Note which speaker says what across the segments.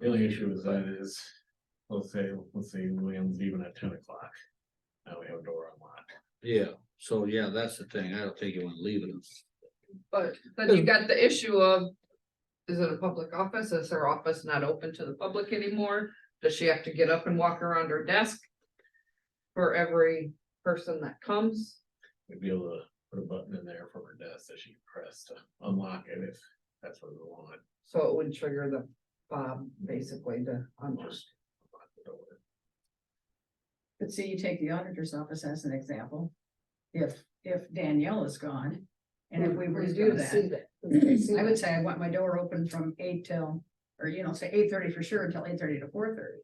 Speaker 1: The only issue with that is, let's say, let's say William's even at ten o'clock. Now we have a door unlocked.
Speaker 2: Yeah, so yeah, that's the thing. I don't think you wanna leave it.
Speaker 3: But then you got the issue of. Is it a public office? Is her office not open to the public anymore? Does she have to get up and walk around her desk? For every person that comes?
Speaker 1: We'd be able to put a button in there from her desk that she can press to unlock it if that's what we want.
Speaker 3: So it would trigger the Bob basically to unlock.
Speaker 1: Just unlock the door.
Speaker 4: But see, you take the auditor's office as an example. If, if Danielle is gone, and if we were to do that, I would say I want my door open from eight till, or you know, say eight thirty for sure until eight thirty to four thirty.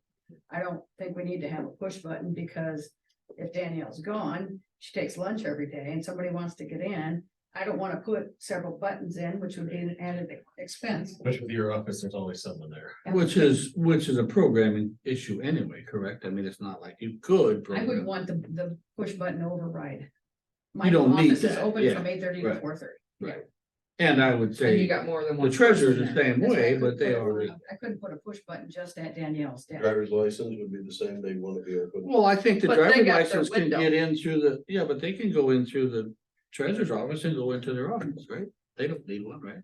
Speaker 4: I don't think we need to have a push button because if Danielle's gone, she takes lunch every day and somebody wants to get in. I don't wanna put several buttons in, which would be an added expense.
Speaker 1: Which with your office, there's always someone there.
Speaker 2: Which is, which is a programming issue anyway, correct? I mean, it's not like you could.
Speaker 4: I would
Speaker 2: program-
Speaker 4: want the, the push button override. My
Speaker 2: You don't need
Speaker 4: office is
Speaker 2: that,
Speaker 4: open
Speaker 2: yeah,
Speaker 4: from eight thirty to
Speaker 2: right.
Speaker 4: four thirty.
Speaker 2: And I would
Speaker 3: And you
Speaker 2: say,
Speaker 3: got more than
Speaker 2: the
Speaker 3: one.
Speaker 2: treasurer's the
Speaker 4: person
Speaker 2: same
Speaker 4: That's why I
Speaker 2: way,
Speaker 4: couldn't
Speaker 2: but they
Speaker 4: put a-
Speaker 2: are,
Speaker 4: I couldn't put a push button just at Danielle's desk.
Speaker 5: Driver's license would be the same, they want to be open.
Speaker 2: well, I think the
Speaker 3: But they
Speaker 2: driver's
Speaker 3: got their
Speaker 2: license can
Speaker 3: window.
Speaker 2: get in through the, yeah, but they can go in through the treasurer's office and go into their office, right? They don't need one, right?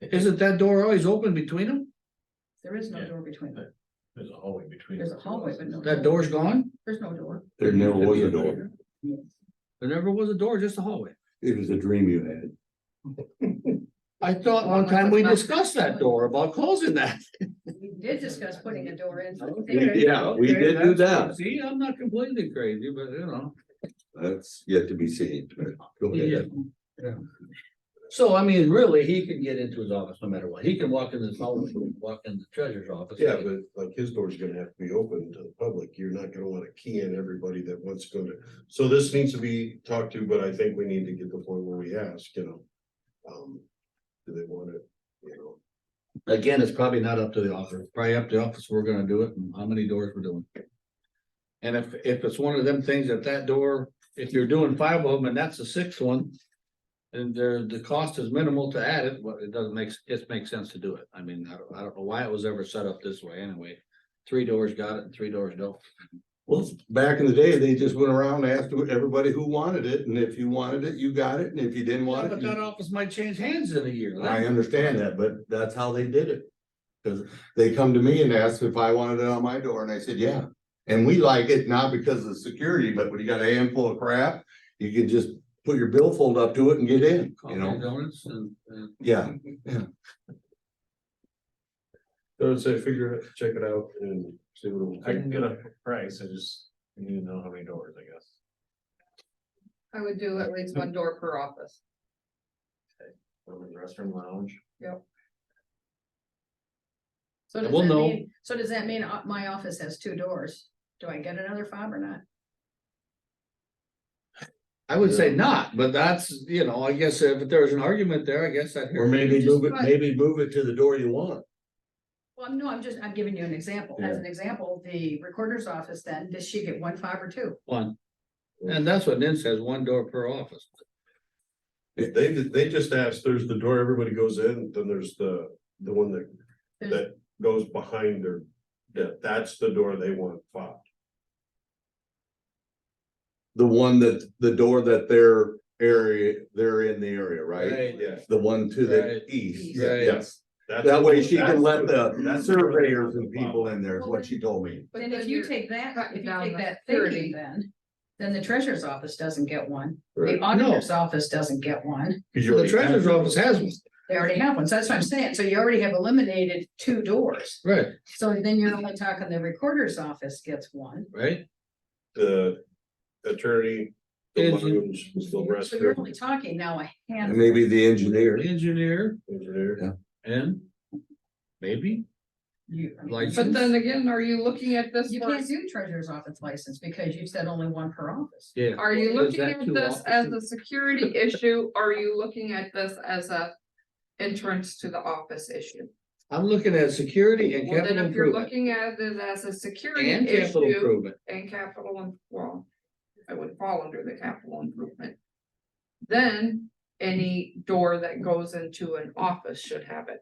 Speaker 2: Isn't that door always open between them?
Speaker 4: There is no
Speaker 1: Yeah.
Speaker 4: door between them.
Speaker 1: There's a hallway between.
Speaker 4: There's
Speaker 1: the
Speaker 4: a
Speaker 1: two
Speaker 4: hallway, but
Speaker 1: offices.
Speaker 4: no-
Speaker 2: That door's gone?
Speaker 4: There's no door.
Speaker 6: There never was a door.
Speaker 2: There never was a door, just a hallway.
Speaker 6: It was a dream you had.
Speaker 2: I thought
Speaker 3: Well,
Speaker 2: one
Speaker 3: unless
Speaker 2: time
Speaker 3: it's
Speaker 2: we
Speaker 3: not-
Speaker 2: discussed that door about closing that.
Speaker 4: We did discuss putting a door in. so
Speaker 6: We did- Yeah, we did do that.
Speaker 2: See, I'm not completely crazy, but you know,
Speaker 6: That's yet to be seen. but go
Speaker 2: yeah.
Speaker 6: ahead.
Speaker 2: yeah. So I mean, really, he can get into his office no matter what. He can walk in this hallway, he can walk in the treasurer's office.
Speaker 5: Yeah, but like his door's gonna have to be open to the public. You're not gonna wanna key in everybody that wants to go to. So this needs to be talked to, but I think we need to get to the point where we ask, you know. Um, do they want it, you know?
Speaker 2: Again, it's probably not up to the office, It's probably up to the office, we're gonna do it, and how many doors we're doing. And if, if it's one of them things that that door, if you're doing five of them and that's the sixth one. And the, the cost is minimal to add it, but it doesn't make, it makes sense to do it, I mean, I don't, I don't know why it was ever set up this way anyway. Three doors got it and three doors don't,
Speaker 6: Well, back in the day, they just went around, and asked everybody who wanted it, and if you wanted it, you got it, and if you didn't want
Speaker 2: but
Speaker 6: it.
Speaker 2: that
Speaker 6: you-
Speaker 2: office might change hands in a year.
Speaker 6: I understand that, but that's how they did it. Cause they come to me and ask if I wanted it on my door, and I said, yeah. And we like it not because of security, but when you got a handful of crap, you can just put your billfold up to it and get in, you
Speaker 2: Coffee
Speaker 6: know?
Speaker 2: donuts and, and
Speaker 6: Yeah.
Speaker 5: I would say figure it, check it out and see what. it will
Speaker 1: I
Speaker 5: take.
Speaker 1: can get a price, I just need to know how many doors, I guess.
Speaker 3: I would do at least one door per office.
Speaker 1: From the restroom lounge.
Speaker 4: So
Speaker 2: And
Speaker 4: does
Speaker 2: we'll
Speaker 4: that
Speaker 2: know.
Speaker 4: mean, so does that mean uh, my office has two doors? Do I get another fob or not?
Speaker 2: I would say not, but that's, you know, I guess if there was an argument there, I guess I'd hear.
Speaker 6: Or maybe
Speaker 4: Just
Speaker 6: move it,
Speaker 4: right.
Speaker 6: maybe move it to the door you want.
Speaker 4: Well, no, I'm just, I'm giving you an example. As an example, the recorder's office then, does she get one fob or two?
Speaker 2: One.
Speaker 5: Mm-hmm.
Speaker 2: And that's what Nin says, one door per office.
Speaker 5: If they, they just asked, there's the door everybody goes in, then there's the, the one that
Speaker 4: There's,
Speaker 5: that goes behind their, that, that's the door they want fobbed.
Speaker 6: The one that, the door that their area, they're in the area, right?
Speaker 5: Yeah.
Speaker 6: The one to
Speaker 2: Right.
Speaker 6: the east.
Speaker 4: Right.
Speaker 5: Yes. That's-
Speaker 6: That way she can
Speaker 5: that's
Speaker 6: let the
Speaker 5: that's
Speaker 6: surveyors and people in there, is
Speaker 4: Well,
Speaker 6: what she told me.
Speaker 3: But
Speaker 4: then if you take that,
Speaker 3: cutting
Speaker 4: if you
Speaker 3: down
Speaker 4: take
Speaker 3: the
Speaker 4: that
Speaker 3: 30.
Speaker 4: thirty, then, then the treasurer's office doesn't get one.
Speaker 6: Right.
Speaker 4: The auditor's office don't get one.
Speaker 2: The treasurer's office has one,
Speaker 4: They already have one, so that's what I'm saying, so you already have eliminated two doors,
Speaker 2: right,
Speaker 4: so then you're only talking the recorder's office gets one.
Speaker 2: right?
Speaker 5: The attorney, the
Speaker 2: Is-
Speaker 5: lounge, the
Speaker 4: So you're
Speaker 5: restroom,
Speaker 4: only talking now a
Speaker 6: And
Speaker 4: handful,
Speaker 6: maybe the engineer.
Speaker 2: Engineer
Speaker 5: engineer.
Speaker 2: and maybe,
Speaker 4: you, I mean,
Speaker 2: Like-
Speaker 3: But then again, are you looking at this?
Speaker 4: you
Speaker 3: for-
Speaker 4: can't do treasurer's office license because you said only one per office.
Speaker 2: yeah.
Speaker 3: Are you
Speaker 2: Well, is
Speaker 3: looking
Speaker 2: that
Speaker 3: at
Speaker 2: too
Speaker 3: this
Speaker 2: often?
Speaker 3: as a security issue? Are you looking at this as a entrance to the office issue?
Speaker 2: I'm looking at security and
Speaker 3: Well, then
Speaker 2: capital
Speaker 3: if you're
Speaker 2: improvement.
Speaker 3: looking at it as a security
Speaker 2: And capital
Speaker 3: issue
Speaker 2: improvement,
Speaker 3: and capital, im- well, it would fall under the capital improvement. Then any door that goes into an office should have it.